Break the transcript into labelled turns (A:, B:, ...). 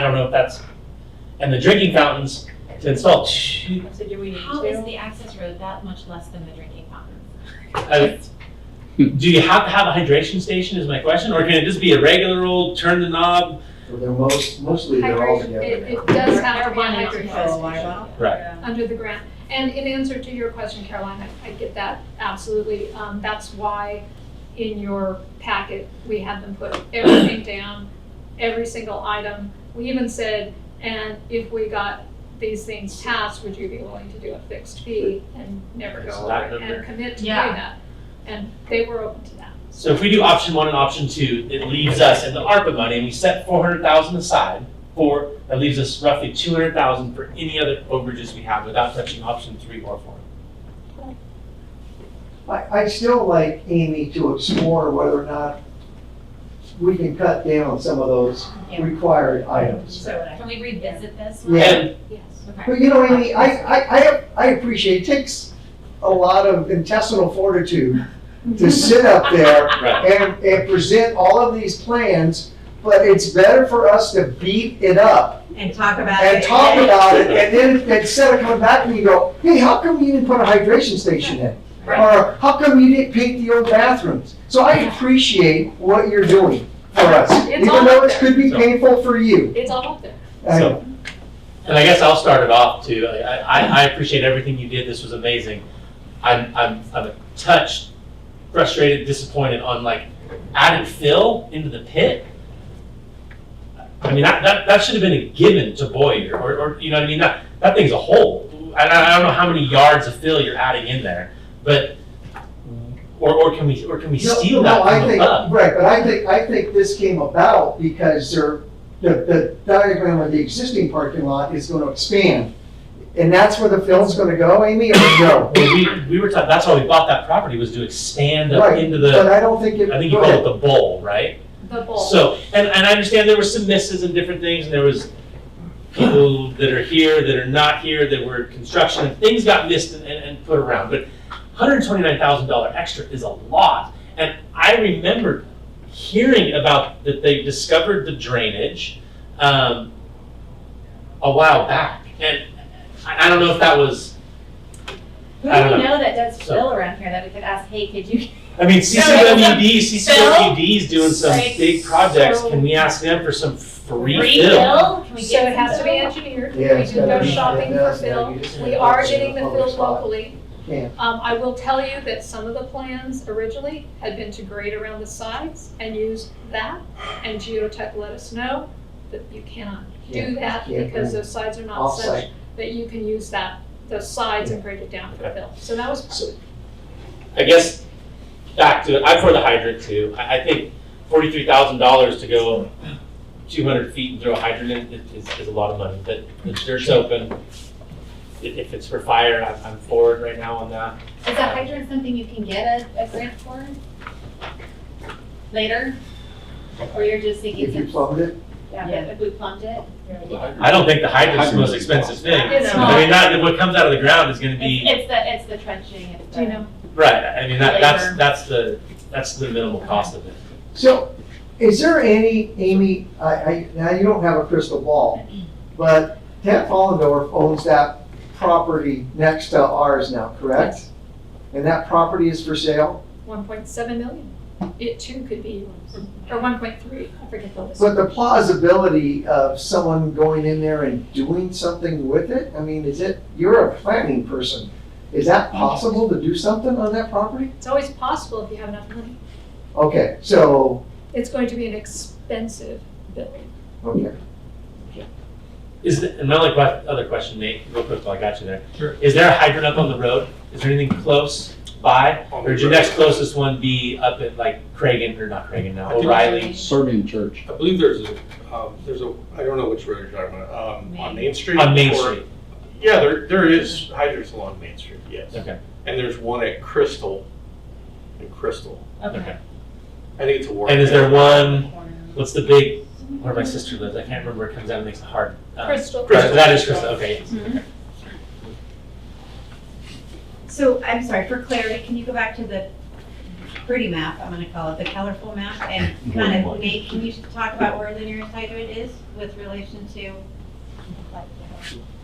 A: I don't know if that's, and the drinking fountains to install two,
B: So do we need
C: How is
B: to?
C: the access road that much less than the drinking fountain?
A: I- do you have to have a hydration station is my question, or can it just be a regular old turn the knob?
D: So They're most, mostly they're all
E: Hydration,
D: together.
E: it,
D: now.
E: it does have to be
C: Marijuana
E: a
C: is
E: hydration station under the grant. And in answer to your question, Caroline, I- I get that, absolutely. Um, that's why in your packet, we had them put everything down, every single item. We even said, and if we got these things passed, would you be willing to do a fixed fee and never go
A: It's
E: over
A: not
E: it
A: in there.
E: and commit to doing
C: Yeah.
E: that? And they were open to that.
A: So if we do option one and option two, it leaves us in the ARPA money, and we set four hundred thousand aside for, that leaves us roughly two hundred thousand for any other overages we have without touching option three or four.
D: I, I'd still like Amy to explore whether or not we can cut down on some of those
B: Yeah.
D: required items.
B: So would I.
C: Can we revisit this?
D: Yeah.
A: And
C: Yes.
D: But you know, Amy, I, I, I, I appreciate, it takes a lot of intestinal fortitude to sit up there
A: Right.
D: and, and present all of these plans, but it's better for us to beat it up
B: And talk about it.
D: and talk about it, and then instead of coming back and you go, hey, how come you didn't put a hydration station in? Or how come you didn't paint the old bathrooms? So I appreciate what you're doing for us,
E: It's
D: even
E: all
D: though
E: up
D: it could be
A: So-
D: painful for you.
E: It's all up there.
D: I-
A: So, and I guess I'll start it off too. I, I, I appreciate everything you did. This was amazing. I'm, I'm, I'm a touched, frustrated, disappointed on like adding Phil into the pit. I mean, that, that, that should have been a given to Boyer, or, or, you know what I mean? That, that thing's a hole. And I, I don't know how many yards of fill you're adding in there, but, or, or can we, or can we
D: No,
A: steal
D: no,
A: that
D: I
A: from
D: think-
A: above?
D: Right, but I think, I think this came about because there, the, the diagram of the existing parking lot is gonna expand. And that's where the fill's gonna go, Amy, or no?
A: Well, we, we were talking, that's why we bought that property was to expand up
D: Right,
A: into the.
D: But I don't think it.
A: I think you
D: go
A: call
D: ahead.
A: it the bowl, right?
E: The bowl.
A: So, and, and I understand there were some misses and different things, and there was people that are here, that are not here, that were construction, and things got missed and, and, and put around, but hundred and twenty-nine thousand dollar extra is a lot, and I remember hearing about that they discovered the drainage, um, a while back, and I, I don't know if that was,
B: Who do
A: I don't
B: we
A: know.
B: know that does
A: So-
B: fill around here that we could ask, hey, could you?
A: I mean, CCWD,
B: Phil?
A: CCWD is doing some
B: Like,
A: big projects,
B: so-
A: can we ask them for some free
B: refill?
A: fill?
B: Can we
E: So
B: get
E: it has to
B: some
E: be
B: fill?
E: engineered, we
D: Yeah, it's
E: do
D: gotta
E: go
D: be-
E: shopping
D: it
E: for
D: does, yeah,
E: fill,
D: you just
E: we
D: gotta
E: are
D: put it in
E: getting
D: a
E: the
D: public
E: fill
D: spot.
E: locally.
D: Yeah.
E: Um, I will tell you that some of the plans originally had been to grade around the sides and use that, and Geotech let us know that you cannot do that
D: can't
E: because
D: do
E: those sides are not
D: Off-site.
E: such that you can use that, those sides and grade it down for
A: Okay.
E: fill. So that was
A: I guess, back to, I'm for the hydrant too, I, I think forty-three thousand dollars to go two hundred feet and throw a hydrant in is- is, is a lot of money, but the dirt's open. I- If it's for fire, I'm, I'm forward right now on that.
B: Is a hydrant something you can get a, a grant for? Later? Or you're just thinking?
D: If you plumbed it,
B: Yeah, but if we plumbed it?
A: I don't think the hydrant's the most
F: Hydrant's
A: expensive thing.
E: It's
A: I mean,
B: not.
A: that, what comes out of the ground is gonna be.
B: It's, it's the, it's the trenching, it's
E: Do you know?
B: the.
A: Right, I mean, that,
B: Labor.
A: that's, that's the, that's the minimal cost of it.
D: So, is there any, Amy, I, I, now you don't have a crystal ball, but Ted Follendorf owns that property next to ours now, correct? And that property is for sale,
E: one point seven million. It too could be, yours. or one point three, I forget the list.
D: but the plausibility of someone going in there and doing something with it, I mean, is it, you're a planning person. Is that possible to do something on that property?
E: It's always possible if you have enough money.
D: Okay, so,
E: It's going to be an expensive building.
D: okay.
A: Is, the- and my only que- other question, Nate, real quick while I got you there. Is there a hydrant up on the road? Is there anything close by? Or would your next closest one be up at like Cragen, or not Cragen
F: I
A: now,
F: think-
A: O'Reilly?
F: Serbian church.
G: I believe there's a, um, there's a, I don't know which road you're talking about, um, on Main Street?
A: On Main
G: or-
A: Street?
G: Yeah, there, there is hydrants along Main Street, yes.
A: Okay.
G: And there's one at Crystal, and Crystal,
A: Okay.
G: I think it's a war.
A: And is there one,
B: Corner.
A: what's the big, where my sister lives? I can't remember where it comes out and makes it hard. Uh,
E: Crystal.
A: Crystal, that is Crystal, okay.
B: So I'm sorry, for clarity, can you go back to the, pretty map, I'm gonna call it, the colorful map, and kind of make, can you talk about where linear entitlement is with relation to, like,